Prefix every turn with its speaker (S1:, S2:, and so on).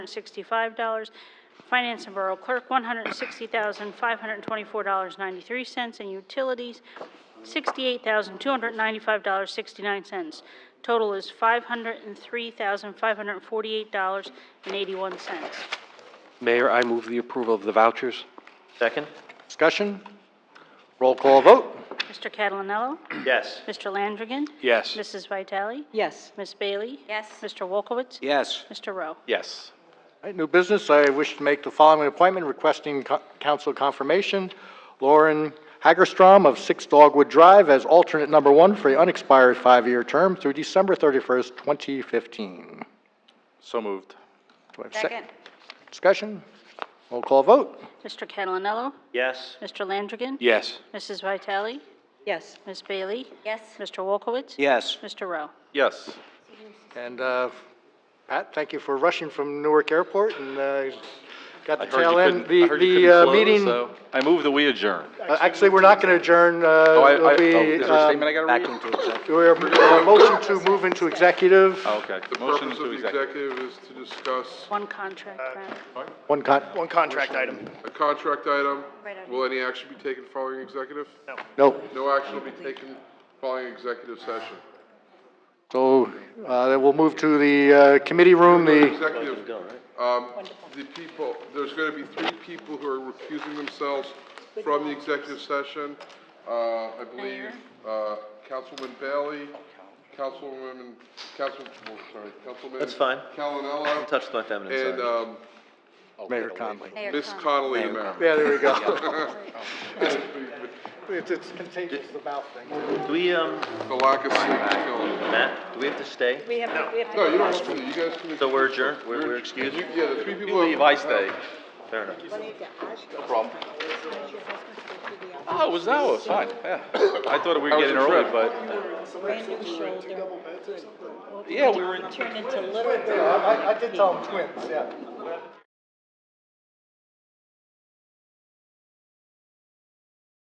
S1: $165. Finance and Borough Clerk, $160,524.93. And Utilities, $68,295.69. Total is $503,548.81.
S2: Mayor, I move the approval of the vouchers.
S3: Second?
S2: Discussion? Roll call vote?
S1: Mr. Catalinello?
S3: Yes.
S1: Mr. Landrigan?
S2: Yes.
S1: Mrs. Vitale?
S4: Yes.
S1: Ms. Bailey?
S4: Yes.
S1: Mr. Wolkowitz?
S2: Yes.
S1: Mr. Rowe?
S3: Yes.
S2: All right, new business, I wish to make the following appointment requesting co- council confirmation. Lauren Hagerstrom of 6 Dogwood Drive as alternate number one for an unexpired five-year term through December 31st, 2015.
S3: So moved.
S2: Do I have a sec- Discussion? Roll call vote?
S1: Mr. Catalinello?
S3: Yes.
S1: Mr. Landrigan?
S2: Yes.
S1: Mrs. Vitale?
S4: Yes.
S1: Ms. Bailey?
S4: Yes.
S1: Mr. Wolkowitz?
S2: Yes.
S1: Mr. Rowe?
S3: Yes.
S2: And uh, Pat, thank you for rushing from Newark Airport and uh, got
S3: I
S2: the
S3: heard you
S2: tail end.
S3: couldn't, I
S2: The
S3: heard you
S2: the
S3: couldn't
S2: uh,
S3: close,
S2: meeting.
S3: so- I move that we adjourn.
S2: Uh, Actually, we're not going to adjourn. uh,
S3: Oh, I- I-
S2: it'll
S3: oh,
S2: be,
S3: Is there a
S2: um,
S3: statement I gotta read?
S2: We're, uh, motion to move into executive,
S3: Oh, Okay.
S5: The
S3: Motion
S5: purpose of
S3: to
S5: the
S3: executive.
S5: executive is to discuss
S1: One contract matter.
S2: one con,
S6: One contract item.
S5: a contract item.
S4: Right on.
S5: Will any action be taken following executive? No.
S2: no.
S5: No action will be taken following executive session.
S2: So, uh, then we'll move to the uh, committee room, the,
S5: Executive, um, the people, there's gonna be three people who are recusing themselves from the executive session. Uh, I believe, uh, Councilman Bailey, Councilwoman, Council, oh, sorry, Councilman.
S3: That's fine.
S5: Callanella.
S3: I touched my feminine side.
S5: And, um,
S2: Mayor Conley.
S5: Ms. Connolly, the mayor.
S2: Yeah, there we go.
S3: Do we, um,
S5: The lack of sleep is killing me.
S3: Matt, do we have to stay?
S4: We have, to- we have to.
S5: No, you don't have to, you guys can.
S3: So we're adjourned, we're, we're excused?
S5: You- Yeah, the three people.
S3: You leave, I stay. Fair enough. No problem. Oh, it was, that was fine, yeah. I thought we were getting early, but,
S4: Brand new shoulder.
S3: yeah, we were in.
S4: Turn into little girl.
S2: I, I did tell them twins, yeah.